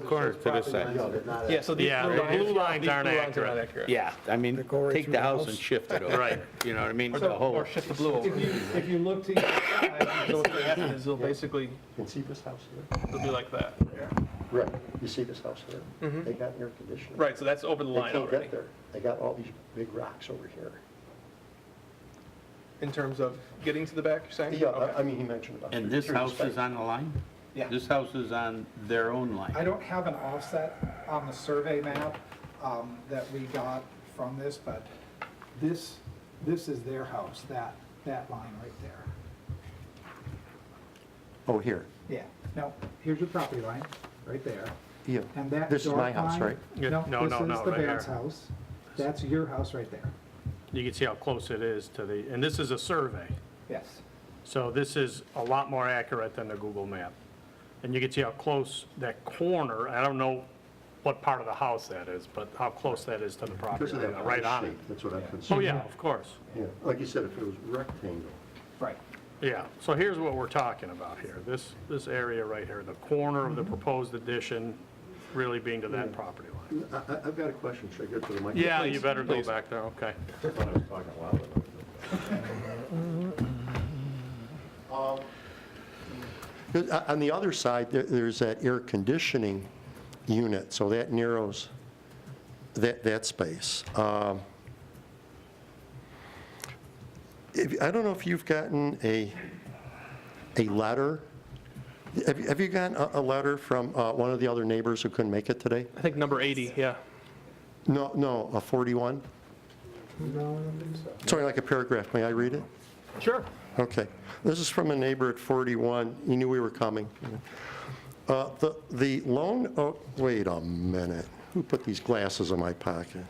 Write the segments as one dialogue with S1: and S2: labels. S1: corner to this side.
S2: Yeah, so these
S3: Yeah,
S2: blue
S3: the
S2: lines-
S3: blue lines
S2: these
S3: aren't
S2: blue
S3: accurate.
S1: Yeah, I mean, take the house and shift it over.
S3: Right.
S1: You know what I mean? The
S2: So-
S1: whole-
S2: Or shift the blue over.
S4: If you, if you look to, your side,
S2: So what will happen is it'll basically,
S4: you see this house here?
S2: it'll be like that.
S4: Right, you see this house here?
S3: Mm-hmm.
S4: They got air conditioning.
S2: Right, so that's over the
S4: They
S2: line
S4: can't
S2: already,
S4: get there. They got all these big rocks over here.
S2: in terms of getting to the back, you're saying?
S4: Yeah,
S2: Okay.
S4: I- I mean, he mentioned about.
S1: And this
S4: through the
S1: house
S4: space.
S1: is on the line?
S2: Yeah.
S1: This house is on their own line?
S5: I don't have an offset on the survey map um, that we got from this, but this, this is their house, that, that line right there.
S4: Oh, here,
S5: Yeah, now, here's your property line, right there.
S4: yeah.
S5: And that
S4: This is my
S5: dark
S4: house,
S5: line-
S4: right?
S3: Yeah, no,
S5: No,
S3: no,
S5: this
S3: no,
S5: is the
S3: right there.
S5: Barrett's house. That's your house right there.
S3: You can see how close it is to the, and this is a survey.
S5: Yes.
S3: So this is a lot more accurate than the Google map. And you can see how close that corner, I don't know what part of the house that is, but how close that is to the property,
S4: Because of
S3: line,
S4: that
S3: right on it.
S4: shape, That's what I'm concerned.
S3: Oh, yeah, of course,
S4: Yeah, like you said, if it was rectangle,
S5: Right.
S3: yeah. So here's what we're talking about here, this, this area right here, the corner of the
S4: Mm-hmm.
S3: proposed addition really being to
S4: Mm.
S3: that property line.
S4: I, I- I've got a question, should I get to the microphone?
S3: Yeah, you better go back there, okay.
S4: Uh, On the other side, there- there's that air conditioning unit, so that narrows that, that space. Um, if- I don't know if you've gotten a, a letter, have you- have you gotten a a letter from uh, one of the other neighbors who couldn't make it today?
S2: I think number 80, yeah.
S4: No, no, a 41? Sorry, like a paragraph, may I read it?
S2: Sure.
S4: Okay. This is from a neighbor at 41. He knew we were coming. Uh, The the lone, oh, wait a minute. Who put these glasses in my pocket?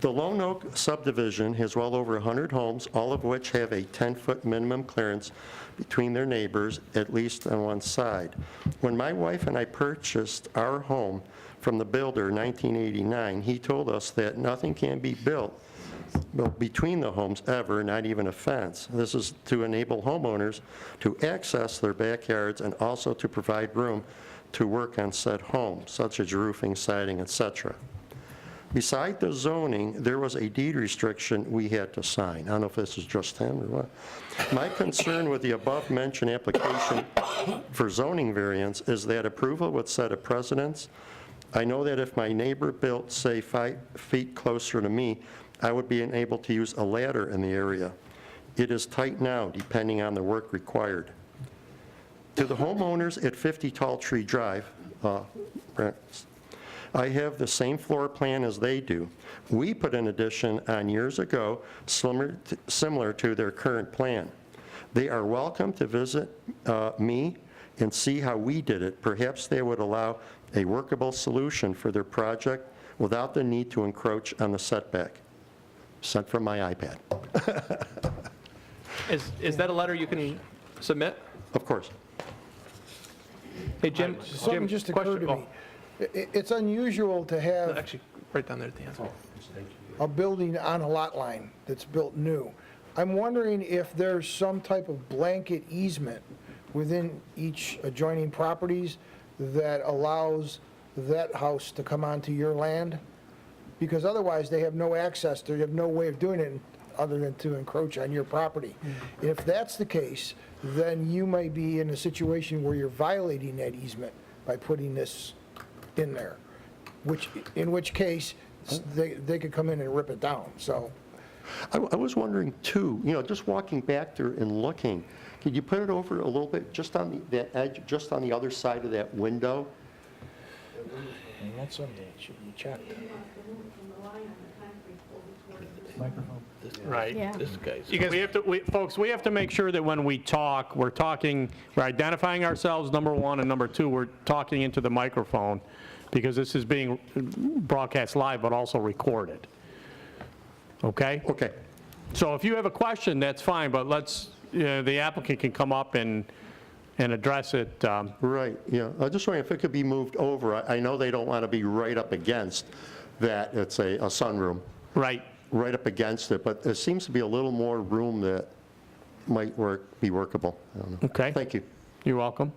S4: The Lone Oak subdivision has well over 100 homes, all of which have a 10-foot minimum clearance between their neighbors, at least on one side. When my wife and I purchased our home from the builder in 1989, he told us that nothing can be built well, between the homes ever, not even a fence. This is to enable homeowners to access their backyards and also to provide room to work on said home, such as roofing, siding, et cetera. Beside the zoning, there was a deed restriction we had to sign. I don't know if this is just him or what. My concern with the above-mentioned application for zoning variance is that approval would set a precedence. I know that if my neighbor built, say, five feet closer to me, I would be unable to use a ladder in the area. It is tight now, depending on the work required. To the homeowners at 50 Tall Tree Drive, uh, Brent, I have the same floor plan as they do. We put an addition on years ago, similar t- similar to their current plan. They are welcome to visit uh, me and see how we did it. Perhaps they would allow a workable solution for their project without the need to encroach on the setback. Sent from my iPad,
S2: Is, is that a letter you can submit?
S4: of course.
S2: Hey, Jim, Jim,
S6: Something just occurred
S2: question.
S6: to me. I- i- It's unusual to
S2: oh,
S6: have
S2: Actually, right down there at the end.
S6: a building on a lot line that's built new. I'm wondering if there's some type of blanket easement within each adjoining properties that allows that house to come onto your land? Because otherwise, they have no access, they have no way of doing it other than to encroach on your property. If that's the case, then you may be in a situation where you're violating that easement by putting this in there, which, in which case, they, they could come in and rip it down, so.
S4: I I was wondering too, you know, just walking back there and looking, could you put it over a little bit, just on the- that edge, just on the other side of that window?
S6: That's something that should be checked.
S3: Right.
S7: Yeah.
S3: Because we have to, we- folks, we have to make sure that when we talk, we're talking, we're identifying ourselves, number one, and number two, we're talking into the microphone, because this is being broadcast live, but also recorded. Okay?
S4: Okay,
S3: So if you have a question, that's fine, but let's, you know, the applicant can come up and, and address it. um,
S4: right, yeah. I was just wondering if it could be moved over. I I know they don't want to be right up against that, it's a a sunroom,
S3: Right,
S4: right up against it, but there seems to be a little more room that might work, be workable. I don't know.
S3: okay?
S4: Thank you.
S3: You're welcome.